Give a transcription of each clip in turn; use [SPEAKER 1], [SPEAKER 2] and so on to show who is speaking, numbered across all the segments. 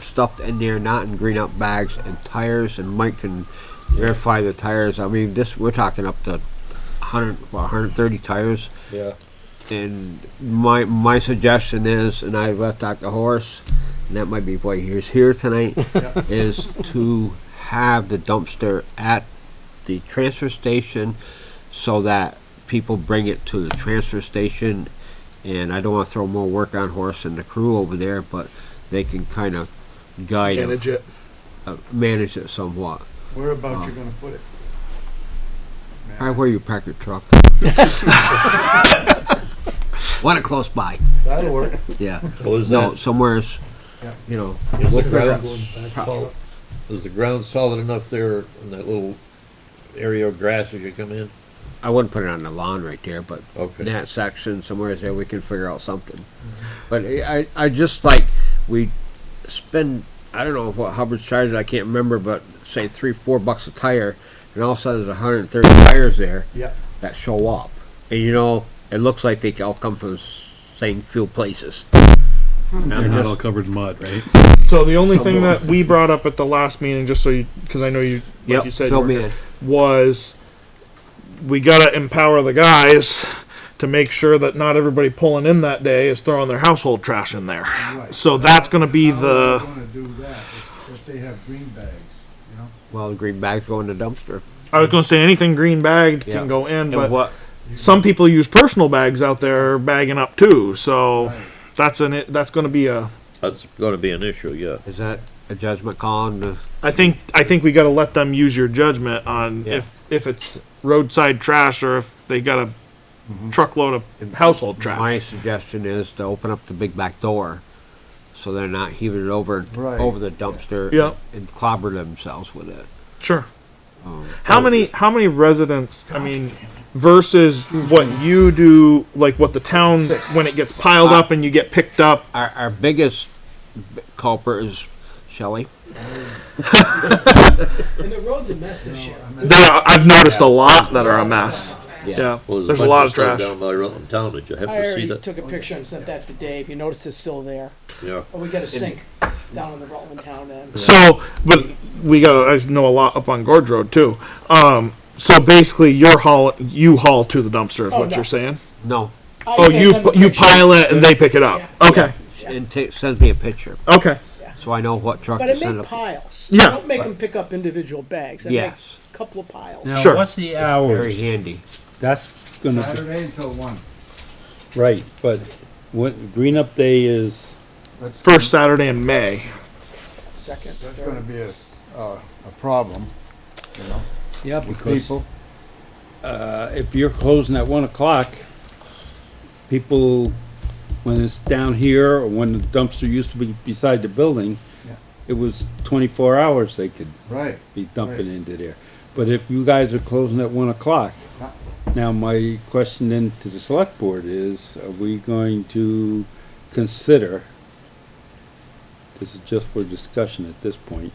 [SPEAKER 1] stuffed in there, not in green up bags and tires. And Mike can verify the tires. I mean, this we're talking up to 100, well, 130 tires.
[SPEAKER 2] Yeah.
[SPEAKER 1] And my my suggestion is, and I left Dr. Horace, and that might be why he's here tonight, is to have the dumpster at the transfer station so that people bring it to the transfer station. And I don't want to throw more work on Horace and the crew over there, but they can kind of guide it,
[SPEAKER 2] Manage it.
[SPEAKER 1] uh, manage it somewhat.
[SPEAKER 3] Whereabouts you gonna put it? Man,
[SPEAKER 1] Right where you park your truck. Want it close by,
[SPEAKER 3] That'll work.
[SPEAKER 1] yeah.
[SPEAKER 2] Was
[SPEAKER 1] No,
[SPEAKER 2] that,
[SPEAKER 1] somewhere's,
[SPEAKER 3] Yeah.
[SPEAKER 1] you know,
[SPEAKER 2] was the
[SPEAKER 3] Look around.
[SPEAKER 2] ground solid, was the ground solid enough there in that little area of grass as you come in?
[SPEAKER 1] I wouldn't put it on the lawn right there, but
[SPEAKER 2] Okay.
[SPEAKER 1] in that section somewhere there, we can figure out something. But I, I I just like, we spend, I don't know what Hubbard's charges, I can't remember, but say three, four bucks a tire, and all of a sudden there's hundred and thirty tires there
[SPEAKER 3] Yeah,
[SPEAKER 1] that show up. And you know, it looks like they all come from the same few places. And I'm
[SPEAKER 4] They're not all
[SPEAKER 1] just,
[SPEAKER 4] covered in mud, right?
[SPEAKER 5] So the only thing that we brought up at the last meeting, just so you, because I know you, like
[SPEAKER 1] yep,
[SPEAKER 5] you said,
[SPEAKER 1] fill
[SPEAKER 5] you
[SPEAKER 1] me
[SPEAKER 5] were-
[SPEAKER 1] in.
[SPEAKER 5] was we gotta empower the guys to make sure that not everybody pulling in that day is throwing their household trash in there.
[SPEAKER 3] right.
[SPEAKER 5] So that's gonna be
[SPEAKER 3] How are we
[SPEAKER 5] the.
[SPEAKER 3] gonna do that if, if they have green bags, you know?
[SPEAKER 1] Well, the green bags go in the dumpster.
[SPEAKER 5] I was gonna say anything green bagged
[SPEAKER 1] Yeah.
[SPEAKER 5] can go in,
[SPEAKER 1] And
[SPEAKER 5] but
[SPEAKER 1] what,
[SPEAKER 5] some people use personal bags out there bagging up too. So
[SPEAKER 3] Right.
[SPEAKER 5] that's an that's gonna be a.
[SPEAKER 2] That's gonna be an issue, yeah.
[SPEAKER 1] is that a judgment call on the
[SPEAKER 5] I think I think we gotta let them use your judgment on
[SPEAKER 1] Yeah.
[SPEAKER 5] if if it's roadside trash or if they got a Mm-hmm. truckload of household trash.
[SPEAKER 1] My suggestion is to open up the big back door, so they're not heaving it over,
[SPEAKER 3] Right.
[SPEAKER 1] over the dumpster.
[SPEAKER 5] Yeah.
[SPEAKER 1] And clobber themselves with it.
[SPEAKER 5] Sure. How many how many residents I mean versus what you do like what the town when it gets piled up and you get picked up
[SPEAKER 1] Our, our biggest b- culprit is Shelley.
[SPEAKER 6] And the road's a mess this year.
[SPEAKER 5] there are, I've noticed a lot that are a mess. Yeah.
[SPEAKER 2] Well,
[SPEAKER 5] There's a lot
[SPEAKER 2] bunch
[SPEAKER 5] of trash.
[SPEAKER 2] stuff Down by Rutland Town, did you
[SPEAKER 6] I
[SPEAKER 2] happen to see
[SPEAKER 6] already
[SPEAKER 2] that?
[SPEAKER 6] took a picture and sent that to Dave. You notice it's still there.
[SPEAKER 2] Yeah.
[SPEAKER 6] Oh, we got a sink down in the Rutland town end.
[SPEAKER 5] So but we got I know a lot up on Gorge Road too. Um so basically your haul you haul to the dumpster is
[SPEAKER 6] Oh,
[SPEAKER 5] what
[SPEAKER 6] no.
[SPEAKER 5] you're saying?
[SPEAKER 1] No,
[SPEAKER 6] I
[SPEAKER 5] Oh
[SPEAKER 6] sent
[SPEAKER 5] you
[SPEAKER 6] them the
[SPEAKER 5] you
[SPEAKER 6] picture,
[SPEAKER 5] pile it and they pick it up.
[SPEAKER 6] Yeah.
[SPEAKER 5] Okay.
[SPEAKER 1] and ta- sends me a picture,
[SPEAKER 5] Okay.
[SPEAKER 1] so I know what truck
[SPEAKER 6] But
[SPEAKER 1] to
[SPEAKER 6] I
[SPEAKER 1] send
[SPEAKER 6] make
[SPEAKER 1] up.
[SPEAKER 6] piles.
[SPEAKER 5] Yeah.
[SPEAKER 6] I don't make them pick up individual bags. I make
[SPEAKER 1] Yes.
[SPEAKER 6] a couple of piles.
[SPEAKER 4] Now,
[SPEAKER 5] Sure.
[SPEAKER 4] What's the
[SPEAKER 1] Very
[SPEAKER 4] hours?
[SPEAKER 1] handy.
[SPEAKER 4] That's gonna, be-
[SPEAKER 3] Saturday until one.
[SPEAKER 4] right, but what, green up day is,
[SPEAKER 3] That's-
[SPEAKER 5] First Saturday in May.
[SPEAKER 6] Second,
[SPEAKER 3] That's
[SPEAKER 6] third.
[SPEAKER 3] gonna be a, uh, a problem, you know,
[SPEAKER 4] yeah,
[SPEAKER 3] with
[SPEAKER 4] because,
[SPEAKER 3] people.
[SPEAKER 4] uh, if you're closing at one o'clock, people, when it's down here, or when the dumpster used to be beside the building,
[SPEAKER 3] Yeah.
[SPEAKER 4] it was twenty-four hours they could
[SPEAKER 3] Right,
[SPEAKER 4] be dumping into there. But if you guys are closing at one o'clock,
[SPEAKER 3] Yeah.
[SPEAKER 4] now my question then to the select board is, are we going to consider, this is just for discussion at this point,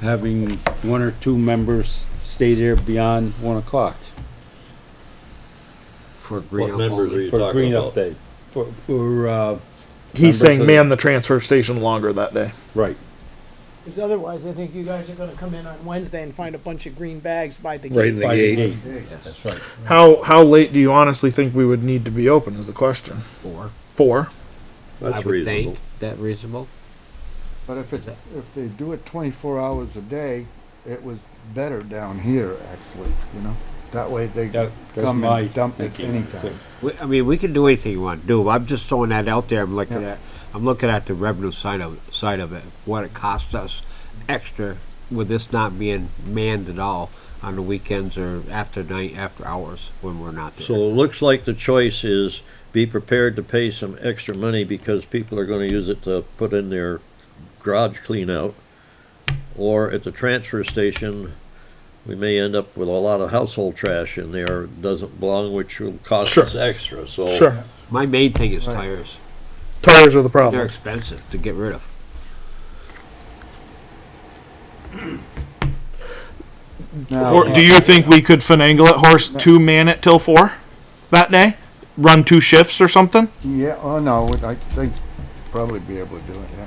[SPEAKER 4] having one or two members stay there beyond one o'clock
[SPEAKER 1] For green
[SPEAKER 2] What
[SPEAKER 1] up
[SPEAKER 2] members are
[SPEAKER 1] only.
[SPEAKER 2] you
[SPEAKER 4] for
[SPEAKER 2] talking
[SPEAKER 4] green up
[SPEAKER 2] about?
[SPEAKER 4] day? For, for, uh,
[SPEAKER 5] He's
[SPEAKER 4] Members
[SPEAKER 5] saying
[SPEAKER 4] of-
[SPEAKER 5] man the transfer station longer that day.
[SPEAKER 4] right,
[SPEAKER 6] Because otherwise, I think you guys are going to come in on Wednesday and find a bunch of green bags by the
[SPEAKER 2] Right
[SPEAKER 6] gate.
[SPEAKER 2] in the
[SPEAKER 4] five to eight,
[SPEAKER 2] gate.
[SPEAKER 3] Hey,
[SPEAKER 4] that's right.
[SPEAKER 5] How how late do you honestly think we would need to be open is the question.
[SPEAKER 1] Four.
[SPEAKER 5] Four.
[SPEAKER 1] I
[SPEAKER 2] That's
[SPEAKER 1] would
[SPEAKER 2] reasonable.
[SPEAKER 1] think, that reasonable?
[SPEAKER 3] But if it, if they do it twenty-four hours a day, it was better down here, actually, you know? That way they
[SPEAKER 4] That- that's
[SPEAKER 3] come
[SPEAKER 4] my
[SPEAKER 3] and dump it
[SPEAKER 4] thinking, too.
[SPEAKER 3] anytime.
[SPEAKER 1] We, I mean, we can do anything you want to do. I'm just throwing that out there. I'm looking
[SPEAKER 3] Yeah.
[SPEAKER 1] at, I'm looking at the revenue side of side of it. What it costs us extra with this not being manned at all on the weekends or after night, after hours when we're not there.
[SPEAKER 2] So it looks like the choice is be prepared to pay some extra money because people are gonna use it to put in their garage clean out. Or at the transfer station, we may end up with a lot of household trash in there, doesn't belong, which will cost
[SPEAKER 5] Sure.
[SPEAKER 2] us extra, so.
[SPEAKER 5] Sure.
[SPEAKER 1] My main thing is
[SPEAKER 3] Right.
[SPEAKER 1] tires.
[SPEAKER 5] Tires are the
[SPEAKER 1] They're
[SPEAKER 5] problem.
[SPEAKER 1] expensive to get rid of.
[SPEAKER 3] Now-
[SPEAKER 5] Or do you think we could finagle it, horse two man it till four that day? Run two shifts or something?
[SPEAKER 3] Yeah, oh, no, I think probably be able to do it, yeah.